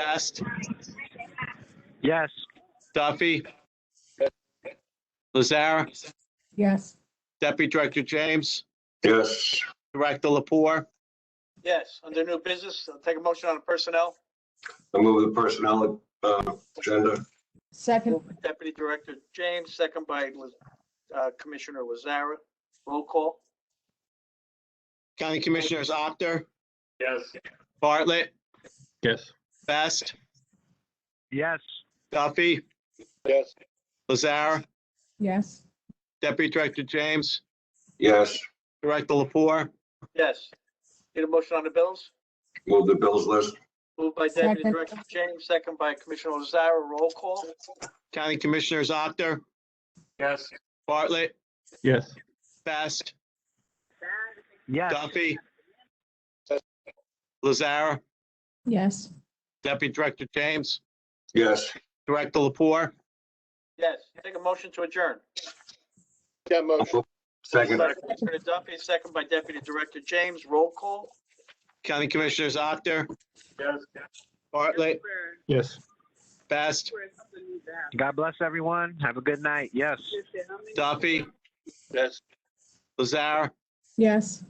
Best, Yes. Duffy, Lazara, Yes. Deputy Director James, Yes. Director Lapore, Yes, under new business, I'll take a motion on personnel. I move the personnel uh, agenda. Second, Deputy Director James, second by uh, Commissioner Lazara. Roll call. County Commissioners Opter, Yes. Bartlett, Yes. Best, Yes. Duffy, Yes. Lazara, yes. Deputy Director James, Yes. Director Lapore, Yes. Need a motion on the bills? Move the bills list. Moved by Deputy Second. Director James, second by Commissioner Lazara. Roll call. County Commissioners Opter, Yes. Bartlett, Yes. Best, Yes. Duffy, Lazara, Yes. Deputy Director James, Yes. Director Lapore, Yes. Take a motion to adjourn. Moved Second. by Commissioner Duffy, second by Deputy Director James. Roll call. County Commissioners Opter, Yes. Bartlett, Yes. Best, God bless everyone. Have a good night. Yes. Duffy, Yes. Lazara, Yes.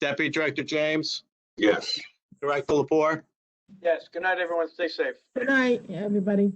Deputy Director James, Yes. Director Lapore. Yes. Good night, everyone. Stay safe. Good night, everybody.